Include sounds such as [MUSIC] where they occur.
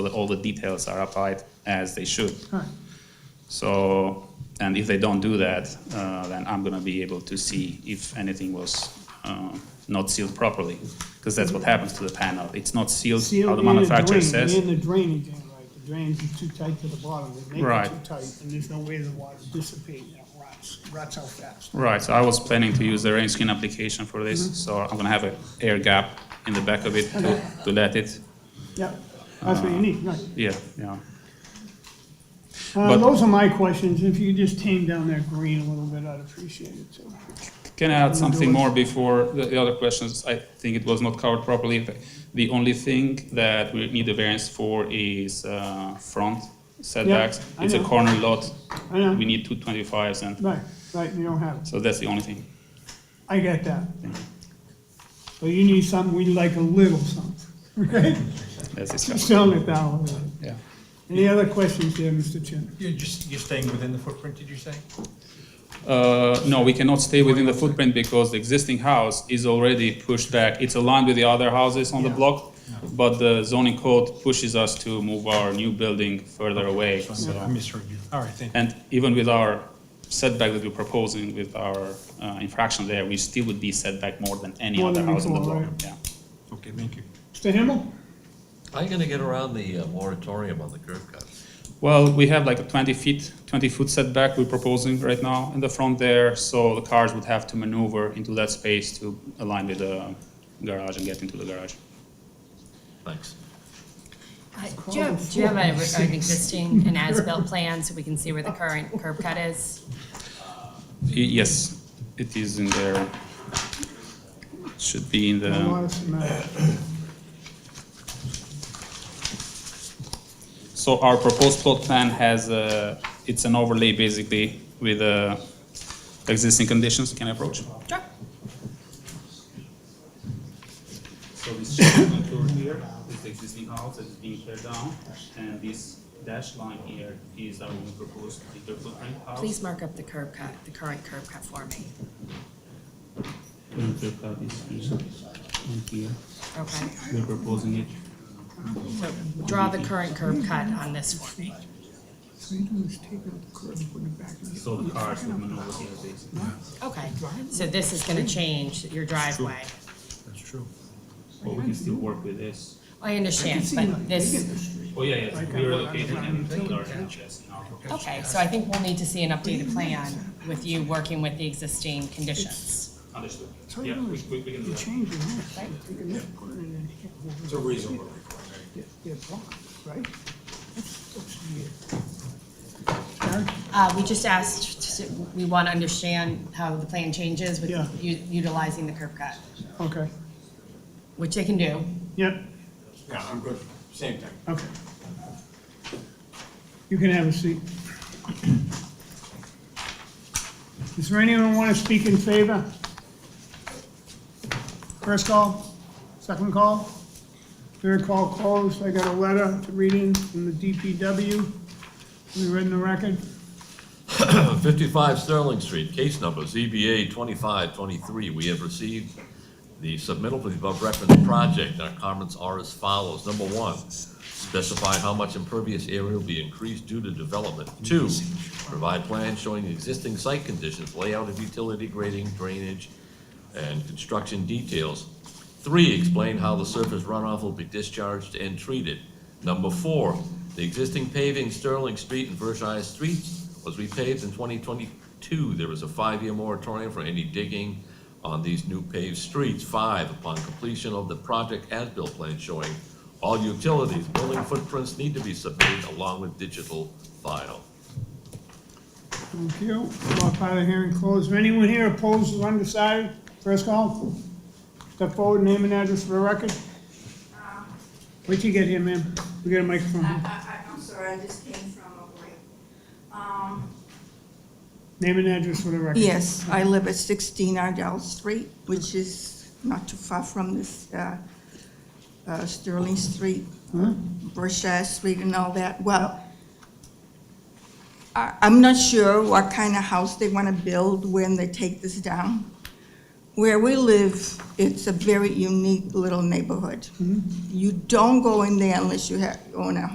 all the details are applied as they should. So, and if they don't do that, uh, then I'm gonna be able to see if anything was uh, not sealed properly, because that's what happens to the panel. It's not sealed, how Seal the in the manufacturer drain, says. in the drainage end, right, the drainage is too tight to the bottom, they make it Right. too tight, and there's no way the water dissipates, and it rots, rots out fast. Right, so I was planning to use the rain skin application for Mm-hmm. this, so I'm gonna have an air gap in the back of it to, to let it, Yep, that's what you Uh, need, right. yeah, yeah. Uh, but- those are my questions, if you could just tame down that green a little bit, I'd appreciate it too. Can I add something more before the the other questions? I think it was not covered properly. The- The only thing that we need a variance for is uh, front setbacks. I It's a know. corner lot. I know. We need two twenty-fives and, Right, right, you don't have it, so that's the only thing. I get that. But you need something, we like a little something, [LAUGHS] okay? That's Just discussed, tone it down a little. yeah. Any other questions there, Mr. Chairman? You're just, you're staying within the footprint, did you say? Uh, no, we cannot stay within the footprint because the existing house is already pushed back. It's aligned with the other houses on the Yeah. block, but the zoning code pushes us to move our new building further away, so. I misheard you. All right, thank you. And even with our setback that we're proposing with our uh, infraction there, we still would be setback more than any More other than house in the before, block. right. Yeah. Okay, thank you. Mr. Himmel? How are you gonna get around the uh, moratorium on the curb cuts? Well, we have like a 20 feet, 20 foot setback we're proposing right now in the front there, so the cars would have to maneuver into that space to align with the garage and get into the garage. Thanks. Uh, Do you have, do you have a- an [LAUGHS] existing, an as-built plan so we can see where the current curb cut is? Y- Yes, it is in there. Should be in I the, want us to know. so our proposed plot plan has a, it's an overlay basically with uh, existing conditions. Can I approach? Sure. So this shaded contour here is the existing house that is being teared down, and this dash line here is our new proposed bigger footprint house. Please mark up the curb cut, the current curb cut for me. And they've got this piece on here, Okay. we're proposing it. So draw the current curb cut on this for me. So you do is take out the curb and put it back in. So the cars will maneuver here basically. Okay, so this is gonna change your driveway. That's true. But we can still work with this. I understand, but this, Oh, yeah, yes, we relocated and filled our hatches in our proposal. okay, so I think we'll need to see an updated plan with you working with the existing conditions. Understood. So you Yeah, do we, is we we can do you that. change your mind, take a look, put it in and here. It's a reasonable They're- They're blocked, right? That's- that's weird. Eric, Uh, we just asked, to- we wanna understand how the plan changes with Yeah. u- utilizing the curb cut. Okay, Which they can do. yep, Yeah, I'm good. Same thing. okay. You can have a seat. Is there anyone want to speak in favor? First call, second call, third call closed. I got a letter to read in from the DPW. We read in the record. Uh, Fifty-five Sterling Street, case number ZBA twenty-five twenty-three. We have received the submittal for the above referenced project. Our comments are as follows. Number one, specify how much impervious area will be increased due to development. Two, provide plans showing the existing site conditions, layout of utility grading, drainage, and construction details. Three, explain how the surface runoff will be discharged and treated. Number four, the existing paving Sterling Street and Versailles Streets was repaved in twenty twenty-two. There was a five-year moratorium for any digging on these new paved streets. Five, upon completion of the project as-built plan showing all utilities, building footprints need to be submitted along with digital file. Thank you. All part of the hearing closed. Is anyone here opposed or undecided? First call. Step forward, name and address for the record. Where'd you get here, ma'am? We got a microphone. I, uh, here. I, I- I'm sorry, I just came from a break. Um, Name and address for the record. Yes, I live at 16 Ardell Street, which is not too far from this uh, uh, Sterling Street, Berkshire Street and all that. Well, I- I'm not sure what kind of house they want to build when they take this down. Where we live, it's a very unique little neighborhood. You don't go in there unless you have, own a